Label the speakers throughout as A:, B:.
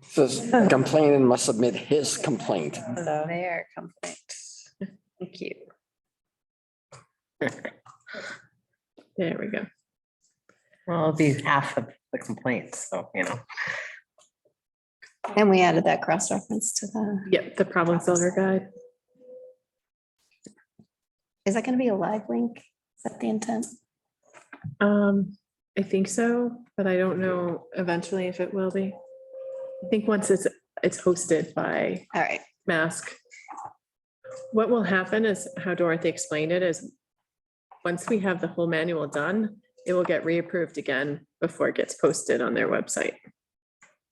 A: Says complaining must submit his complaint.
B: So-
C: Their complaints. Thank you.
B: There we go.
D: Well, it'd be half of the complaints, so, you know.
C: And we added that cross-reference to the,
B: Yep, the problem solver guide.
C: is that going to be a live link? Is that the intent?
B: Um, I think so, but I don't know eventually if it will be. I think once it's, it's hosted by
C: All right.
B: Mask. What will happen is how Dorothy explained it is, once we have the whole manual done, it will get reapproved again before it gets posted on their website.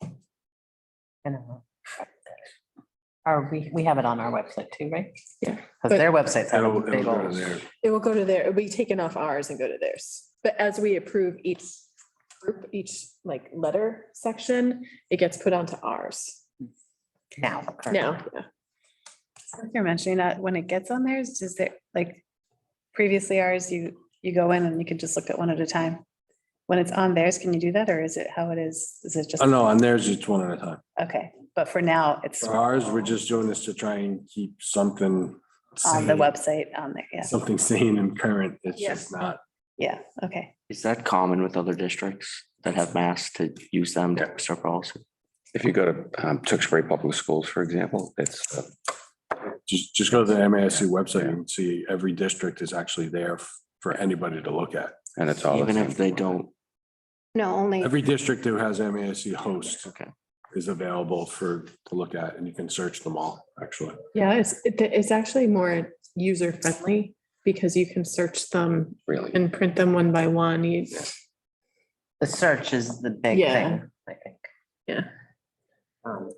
D: I don't know. Are we, we have it on our website too, right?
B: Yeah.
D: Because their website's.
E: That'll,
D: a
E: it'll
D: big
E: go to
D: old-
E: there.
B: It will go to their, it'll be taken off ours and go to theirs. But as we approve each group, each like letter section, it gets put onto ours
D: Now. currently.
B: now. yeah.
C: Since You're mentioning that when it gets on theirs, does it like previously ours, you, you go in and you can just look at one at a time? When it's on theirs, can you do that or is it how it is? Is it just?
E: Oh, no, on theirs, it's one at a time.
C: Okay, but for now, it's
E: For ours, we're just doing this to try and keep something.
C: on the
E: sane,
C: website on there. Yeah,
E: Something sane and current. It's
B: Yeah.
E: just not.
C: yeah, okay.
F: Is that common with other districts that have masks to use them to
G: Yeah.
F: post our policy?
G: If you go to um, Tewksbury Public Schools, for example, it's, uh,
E: Just, just go to the MASC website and see every district is actually there f- for anybody to look at.
G: and it's all. the
F: Even
G: same.
F: if they don't,
C: No, only,
E: Every district that has MASC host
F: okay.
E: is available for, to look at and you can search them all, actually.
B: Yeah, it's, it- it's actually more user friendly because you can search them
G: Really.
B: and print them one by one. You-
D: The search is the big
B: Yeah.
D: thing, I think.
B: Yeah.
D: Um,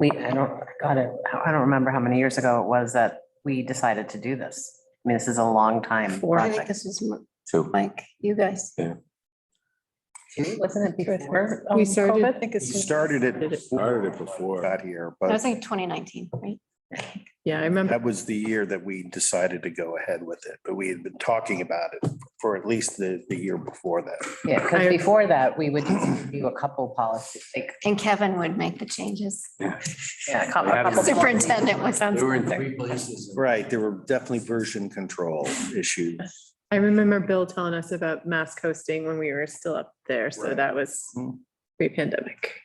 D: We, I don't, God, I I don't remember how many years ago it was that we decided to do this. I mean, this is a long time.
B: Four. I think
D: project.
C: this was
G: So
C: Mike, you guys.
D: Wasn't it before?
B: We
D: um,
B: started-
D: COVID? I think it's-
H: Started
B: Started
H: it.
B: it.
E: Started it before.
H: Got here,
C: I
H: but
C: was like twenty nineteen, right?
B: Yeah, I remember.
H: that was the year that we decided to go ahead with it, but we had been talking about it for at least the, the year before that.
D: Yeah, because before that, we would just do a couple policies, like,
C: And Kevin would make the changes.
D: yeah. a couple- a couple
C: Superintendent was on.
E: They were in three places.
H: Right, there were definitely version control issues.
B: I remember Bill telling us about mask hosting when we were still up there. So
H: Right.
B: that was
H: Mm.
B: pre-pandemic.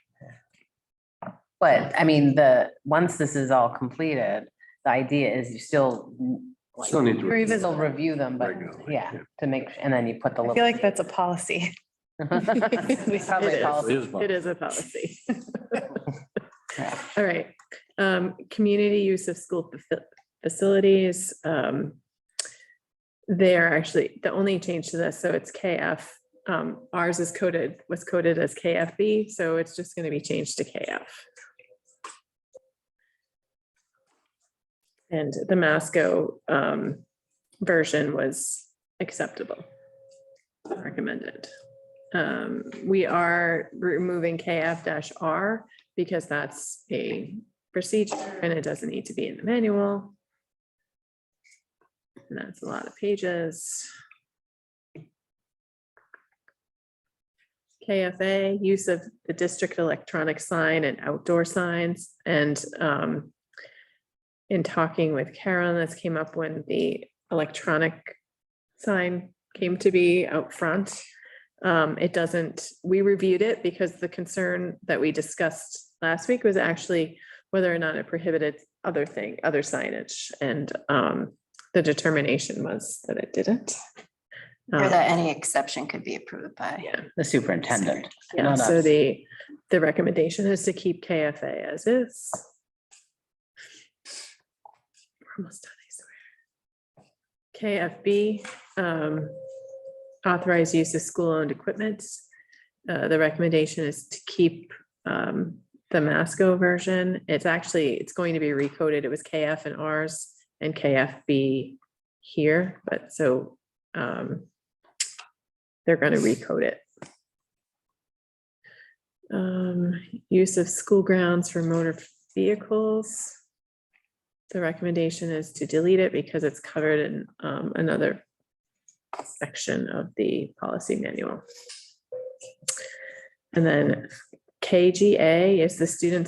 D: But I mean, the, once this is all completed, the idea is you still. like,
E: Still need to.
D: you Still review them, but
E: Regularly,
D: yeah,
E: yeah.
D: to make, and then you put the.
C: I feel like that's a policy.
D: It's probably
B: It is.
D: policy.
B: It
E: It
B: is a policy. All right, um, community use of school faci- facilities, um. They're actually the only change to this, so it's KF, um, ours is coded, was coded as KFB, so it's just gonna be changed to KF. And the Masco, um, version was acceptable. Recommended. Um, we are removing KF R because that's a procedure and it doesn't need to be in the manual. And that's a lot of pages. KFA, use of the district electronic sign and outdoor signs and um, in talking with Karen, this came up when the electronic sign came to be out front. Um, it doesn't, we reviewed it because the concern that we discussed last week was actually whether or not it prohibited other thing, other signage. And, um, the determination was that it didn't.
C: Or
B: Um,
C: that any exception could be approved by.
B: Yeah,
D: The superintendent.
B: yeah,
D: not
B: so
D: us.
B: the, the recommendation is to keep KFA as is. We're Almost done, I swear. KFB, um, authorized use of school-owned equipment. Uh, the recommendation is to keep, um, the Masco version. It's actually, it's going to be recoded. It was KF and Rs and KFB here, but so, um, they're gonna recode it. Um, use of school grounds for motor vehicles. The recommendation is to delete it because it's covered in um another section of the policy manual. And then KGA is the students